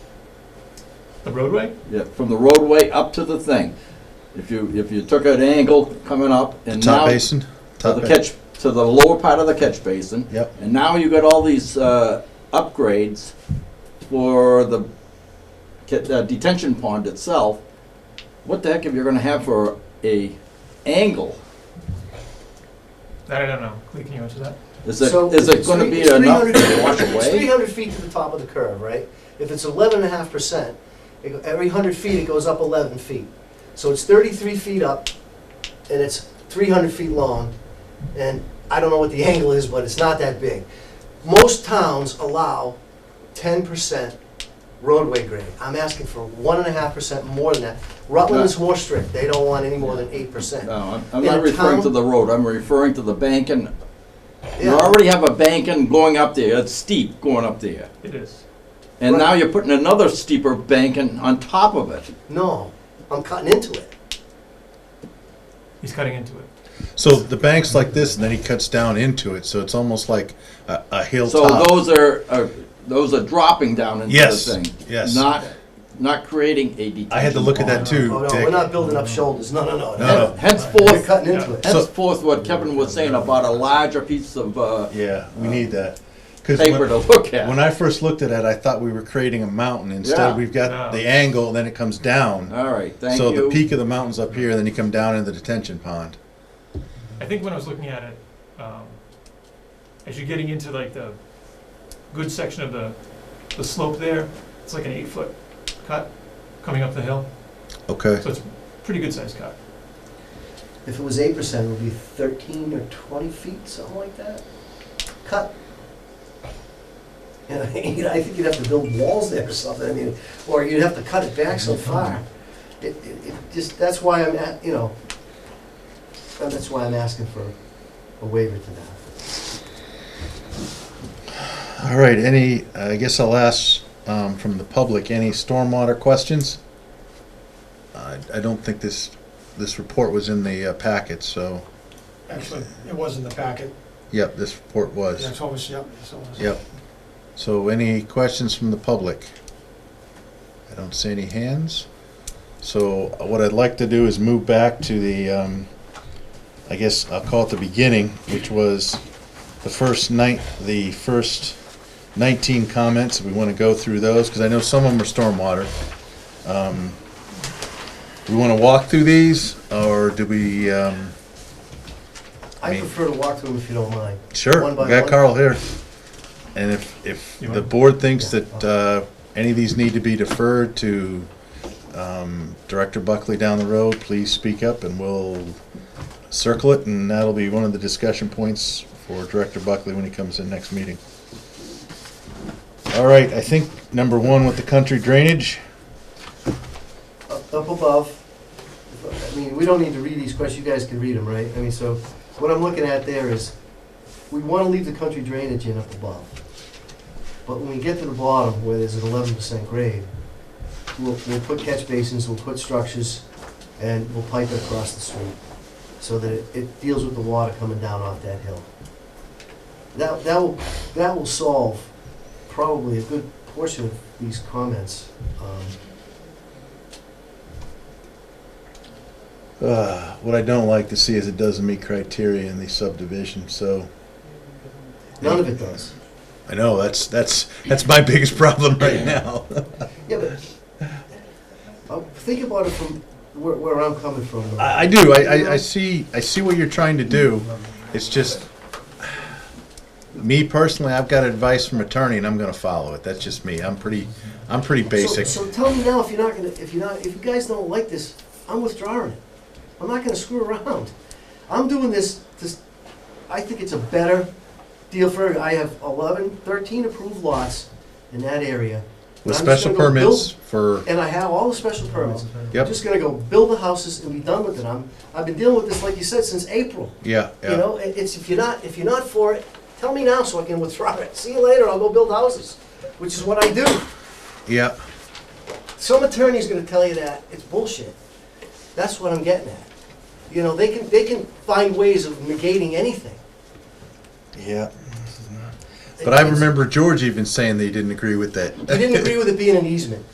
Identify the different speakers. Speaker 1: The roadway?
Speaker 2: Yeah, from the roadway up to the thing. If you, if you took an angle coming up and now.
Speaker 3: Top basin?
Speaker 2: To
Speaker 3: Top
Speaker 2: the
Speaker 3: ba-
Speaker 2: catch, to the lower part of the catch basin.
Speaker 3: Yep.
Speaker 2: And now you got all these, uh, upgrades for the ca- uh, detention pond itself. What the heck if you're gonna have for a angle?
Speaker 1: I don't know. Lee, can you answer that?
Speaker 2: Is it,
Speaker 4: So
Speaker 2: is it
Speaker 4: it's
Speaker 2: gonna
Speaker 4: three-
Speaker 2: be
Speaker 4: it's
Speaker 2: enough
Speaker 4: 300
Speaker 2: to wash
Speaker 4: It's three
Speaker 2: away?
Speaker 4: hundred feet to the top of the curve, right? If it's eleven and a half percent, every hundred feet, it goes up eleven feet. So it's thirty-three feet up, and it's three hundred feet long, and I don't know what the angle is, but it's not that big. Most towns allow ten percent roadway grade. I'm asking for one and a half percent more than that. Rutland is more strict, they don't want any more than eight percent.
Speaker 2: No, I'm- I'm
Speaker 4: In a
Speaker 2: not referring to
Speaker 4: town-
Speaker 2: the road, I'm referring to the banking. You
Speaker 4: Yeah.
Speaker 2: already have a banking going up there, it's steep going up there.
Speaker 1: It is.
Speaker 2: And
Speaker 4: Right.
Speaker 2: now you're putting another steeper banking on top of it.
Speaker 4: No, I'm cutting into it.
Speaker 1: He's cutting into it.
Speaker 3: So the bank's like this, and then he cuts down into it, so it's almost like a, a
Speaker 2: So
Speaker 3: hilltop.
Speaker 2: those are, are, those are dropping down into the
Speaker 3: Yes,
Speaker 2: thing.
Speaker 3: yes.
Speaker 2: Not, not creating a detention.
Speaker 3: I had to look at that
Speaker 2: pond.
Speaker 3: too,
Speaker 4: Oh, no,
Speaker 3: Dick.
Speaker 4: we're not building up shoulders, no, no,
Speaker 3: No,
Speaker 4: no.
Speaker 3: no.
Speaker 2: Hen-
Speaker 4: We're
Speaker 2: Henceforth,
Speaker 4: cutting into it.
Speaker 3: So-
Speaker 2: henceforth, what Kevin was saying about a larger piece of, uh,
Speaker 3: Yeah, we need that. 'Cause
Speaker 2: paper
Speaker 3: when-
Speaker 2: to look at.
Speaker 3: When I first looked at it, I thought we were creating a mountain.
Speaker 2: Yeah.
Speaker 3: Instead, we've got
Speaker 1: No.
Speaker 3: the angle, and then it comes down.
Speaker 2: All right, thank
Speaker 3: So the
Speaker 2: you.
Speaker 3: peak of the mountain's up here, and then you come down into the detention pond.
Speaker 1: I think when I was looking at it, um, as you're getting into like the good section of the, the slope there, it's like an eight foot cut coming up the hill.
Speaker 3: Okay.
Speaker 1: So it's pretty good sized cut.
Speaker 4: If it was eight percent, it would be thirteen or twenty feet, something like that. Cut. And I, you know, I think you'd have to build walls there or something, I mean, or you'd have to cut it back so far. It, it, it just, that's why I'm, at- you know, uh, that's why I'm asking for a waiver to that.
Speaker 3: All right, any, I guess I'll ask um, from the public, any stormwater questions? I I don't think this, this report was in the uh, packet, so,
Speaker 5: Actually, it was in the packet.
Speaker 3: yep, this report was.
Speaker 5: That's what was, yep, that's what was.
Speaker 3: Yep. So any questions from the public? I don't see any hands. So what I'd like to do is move back to the, um, I guess I'll call it the beginning, which was the first night, the first nineteen comments. We want to go through those because I know some of them are stormwater. Um, Do we want to walk through these or do we, um,
Speaker 4: I
Speaker 3: Me.
Speaker 4: prefer to walk through them if you don't mind.
Speaker 3: Sure,
Speaker 4: One
Speaker 3: we
Speaker 4: by
Speaker 3: got
Speaker 4: one.
Speaker 3: Carl here. And if, if
Speaker 1: You
Speaker 3: the
Speaker 1: want-
Speaker 3: board thinks that uh, any of these need to be deferred to um, Director Buckley down the road, please speak up and we'll circle it and that'll be one of the discussion points for Director Buckley when he comes in next meeting. All right, I think number one with the country drainage,
Speaker 4: up up above, I mean, we don't need to read these questions, you guys can read them, right? I mean, so what I'm looking at there is, we want to leave the country drainage in up above. But when we get to the bottom, where there's an eleven percent grade, we'll, we'll put catch basins, we'll put structures, and we'll pipe it across the street, so that it- it deals with the water coming down off that hill. That, that will, that will solve probably a good portion of these comments. Um,
Speaker 3: Uh, what I don't like to see is it doesn't meet criteria in the subdivision, so.
Speaker 4: None of it does.
Speaker 3: I know, that's, that's, that's my biggest problem right now.
Speaker 4: Yeah, but uh, think about it from where, where I'm coming from. though.
Speaker 3: I, I do. I, I, I see. I see what you're trying to do. It's just me personally. I've got advice from attorney, and I'm going to follow it. That's just me. I'm pretty. I'm pretty basic.
Speaker 4: So, so tell me now if you're not gonna, if you're not, if you guys don't like this, I'm withdrawing it. I'm not gonna screw around. I'm doing this, this, I think it's a better deal for, I have 11, 13 approved lots in that area.
Speaker 3: With
Speaker 4: I'm just
Speaker 3: special
Speaker 4: gonna go
Speaker 3: permits for.
Speaker 4: build- And I have all the special permits. I'm
Speaker 3: Yep.
Speaker 4: just gonna go build the houses and be done with it. I'm, I've been dealing with this, like you said, since April.
Speaker 3: Yeah.
Speaker 4: You
Speaker 3: Yeah.
Speaker 4: know, it- it's, if you're not, if you're not for it, tell me now so I can withdraw it. See you later, I'll go build houses, which is what I do.
Speaker 3: Yeah.
Speaker 4: Some attorney's gonna tell you that, it's bullshit. That's what I'm getting at. You know, they can, they can find ways of negating anything.
Speaker 3: Yeah. But I
Speaker 4: It's-
Speaker 3: remember George even saying that he didn't agree with that.
Speaker 4: He didn't agree with it being an easement.